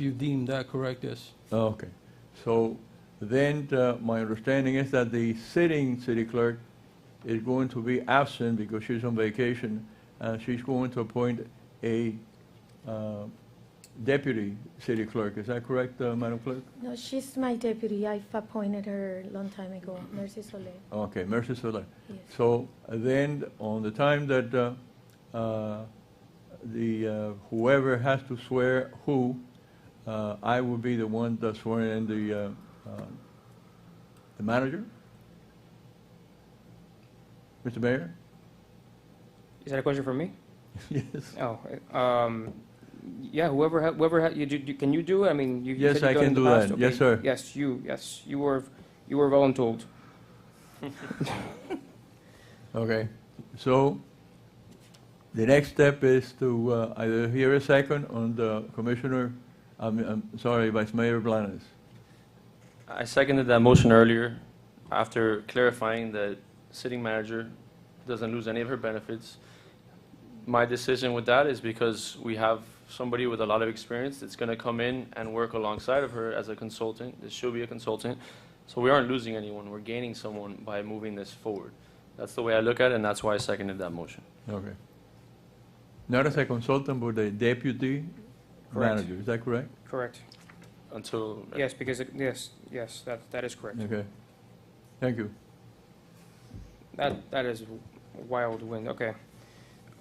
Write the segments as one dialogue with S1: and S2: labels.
S1: you deem that correct, yes.
S2: Okay. So then, uh, my understanding is that the sitting city clerk is going to be absent because she's on vacation, and she's going to appoint a uh, deputy city clerk. Is that correct, uh, Madam Clerk?
S3: No, she's my deputy. I've appointed her a long time ago, Mercy Soler,
S2: Okay, Mercy Solar.
S3: yes.
S2: So then, on the time that uh, uh, the, uh, whoever has to swear who, uh, I will be the one that's swearing in the, uh, uh, the manager? Mr. Mayor?
S4: Is that a question for me?
S2: Yes.
S4: Oh, um, yeah, whoever, ha- whoever, ha- you, do- do- can you do it? I mean, you. you
S2: Yes,
S4: said you've
S2: I
S4: done it
S2: can
S4: in the
S2: do that.
S4: past.
S2: Yes,
S4: Okay.
S2: sir.
S4: Yes, you, yes, you were, you were voluntold.
S2: Okay. So the next step is to uh, either hear a second on the Commissioner, I'm, I'm sorry, Vice Mayor Blanes.
S5: I seconded that motion earlier after clarifying that sitting manager doesn't lose any of her benefits. My decision with that is because we have somebody with a lot of experience that's going to come in and work alongside of her as a consultant. This should be a consultant. So we aren't losing anyone. We're gaining someone by moving this forward. That's the way I look at it, and that's why I seconded that motion.
S2: Okay. Not as a consultant, but a deputy
S4: Correct.
S2: manager, is that correct?
S4: Correct.
S5: Until
S4: Yes, because, it- yes, yes, that, that is correct.
S2: Okay. Thank you.
S4: That, that is wild wind, okay.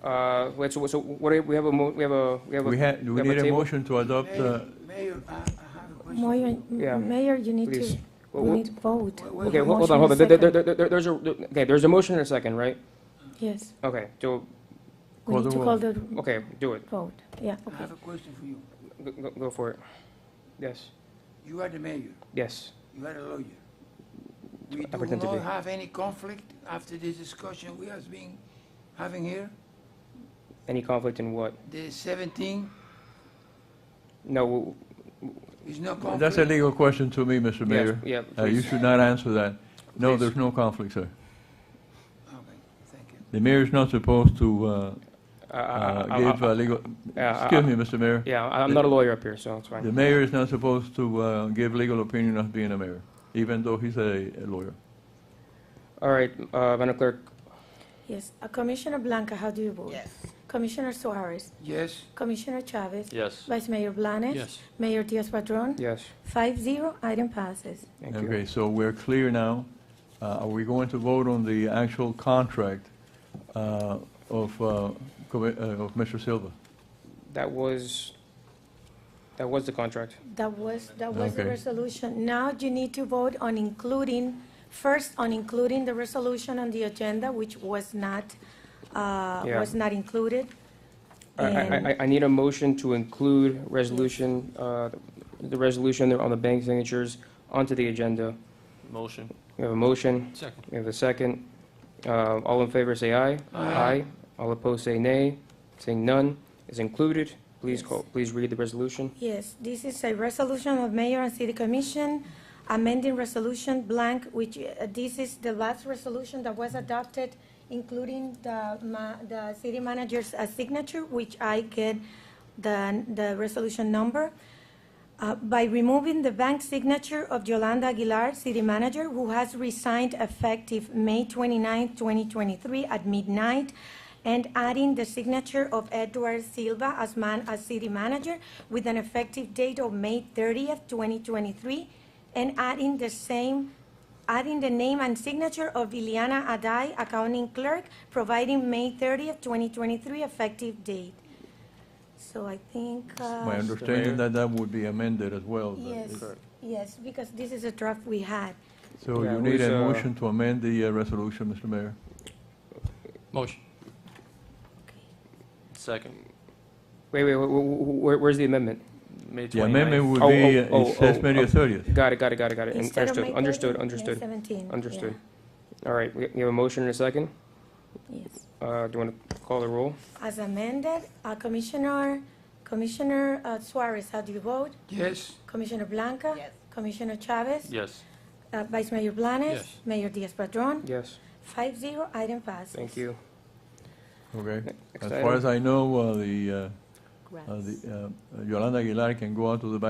S4: Uh, wait, so, so what, do you- we have a, mo- we have a, we have a.
S2: We had, we
S4: have
S2: need a
S4: table?
S2: motion to adopt, uh,
S6: Mayor, I I have a question.
S3: Mayor, m-
S4: Yeah.
S3: Mayor, you need
S4: Please.
S3: to,
S4: Well,
S3: we
S4: well-
S3: need to vote.
S6: Wait, wait,
S4: Okay,
S3: Motion
S4: hold hold on, hold on. There-
S3: and
S4: there-
S3: second.
S4: there- there- There's a, okay, there's a motion and a second, right?
S3: Yes,
S4: Okay, so,
S3: we
S2: Call
S3: need
S2: the
S3: to
S2: roll.
S3: call the
S4: okay, do it.
S3: vote, yeah,
S6: I
S3: okay.
S6: have a question for you.
S4: Go- Go, go for it. Yes,
S6: You are the mayor,
S4: yes.
S6: you are a lawyer. We
S4: I
S6: do
S4: pretend to be.
S6: not have any conflict after this discussion we have been having here,
S4: Any conflict in what?
S6: the 17
S4: No,
S6: is no conflict.
S2: that's a legal question to me, Mr.
S4: yes,
S2: Mayor.
S4: yeah,
S2: Uh, You
S4: please.
S2: should not answer that. No,
S4: Please.
S2: there's no conflict, sir.
S6: Okay, thank you.
S2: The mayor is not supposed to uh,
S4: I- I-
S2: uh,
S4: I-
S2: give
S4: I-
S2: uh, legal,
S4: yeah,
S2: excuse
S4: I-
S2: me, Mr. Mayor.
S4: Yeah, I- I'm not a lawyer up here, so it's
S2: The
S4: fine.
S2: mayor is not supposed to uh, give legal opinion of being a mayor, even though he's a a lawyer.
S4: All right, uh, Madam Clerk,
S3: Yes, Uh, Commissioner Blanca, how do you vote? Yes. Commissioner Suarez,
S6: Yes,
S3: Commissioner Chavez,
S5: yes.
S3: Vice Mayor Blanes.
S1: Yes.
S3: Mayor Diaz-Padrón,
S4: yes,
S3: five zero, item passes.
S4: thank you.
S2: Okay, so we're clear now. Uh, Are we going to vote on the actual contract uh, of uh, Commi- uh, of Mr. Silva?
S4: That was, that was the contract.
S3: That was, that was the
S2: Okay.
S3: resolution. Now you need to vote on including, first on including the resolution on the agenda, which was not, uh,
S4: Yeah.
S3: was not included.
S4: I- I, I, I need a motion to include resolution, uh, the resolution on the bank signatures onto the agenda.
S5: Motion.
S4: We have a motion,
S1: Second.
S4: we have a second. Uh, All in favor, say aye.
S6: Aye.
S4: All opposed, say nay. Saying none is included. Please
S3: Yes.
S4: call, please read the resolution.
S3: Yes, this is a resolution of mayor and city commission amending resolution blank, which, uh, this is the last resolution that was adopted, including the ma, the city manager's uh, signature, which I get the, the resolution number. Uh, By removing the bank signature of Yolanda Aguilar, city manager, who has resigned effective May 29, 2023 at midnight, and adding the signature of Edward Silva as man, as city manager, with an effective date of May 30th, 2023, and adding the same, adding the name and signature of Ileana Adai, accounting clerk, providing May 30th, 2023 effective date. So I think. uh,
S2: My understanding
S5: Mayor?
S2: that that would be amended as well. but-
S3: Yes, yes, because this is a draft we had.
S2: So
S4: Yeah,
S2: you need
S4: who's,
S2: a
S4: uh,
S2: motion to amend the uh, resolution, Mr. Mayor.
S1: Motion.
S5: Second.
S4: Wait, wait, wh- wh- where, where's the amendment?
S5: May 29th.
S2: The amendment would
S4: Oh,
S2: be,
S4: oh,
S2: uh,
S4: oh,
S2: it says
S4: oh,
S2: May the
S4: oh.
S2: 30th.
S4: Got it, got it, got it, got it. And
S3: Instead of May
S4: Understood, understood,
S3: 30, May 17.
S4: understood,
S3: yeah,
S4: understood. All right, we we have a motion and a second.
S3: Yes.
S4: Uh, Do you want to call the roll?
S3: As amended, uh, Commissioner, Commissioner uh, Suarez, how do you vote?
S6: yes,
S3: Commissioner Blanca? Yes. Commissioner Chavez?
S5: Yes.
S3: Uh, Vice Mayor Blanes?
S1: Yes.
S3: Mayor Diaz-Padrón?
S4: Yes,
S3: Five zero, item passes.
S4: thank you.
S2: Okay.
S4: Next
S2: As
S4: item.
S2: far as I know, uh, the, uh, uh, the, uh, Yolanda Aguilar can go out to the bank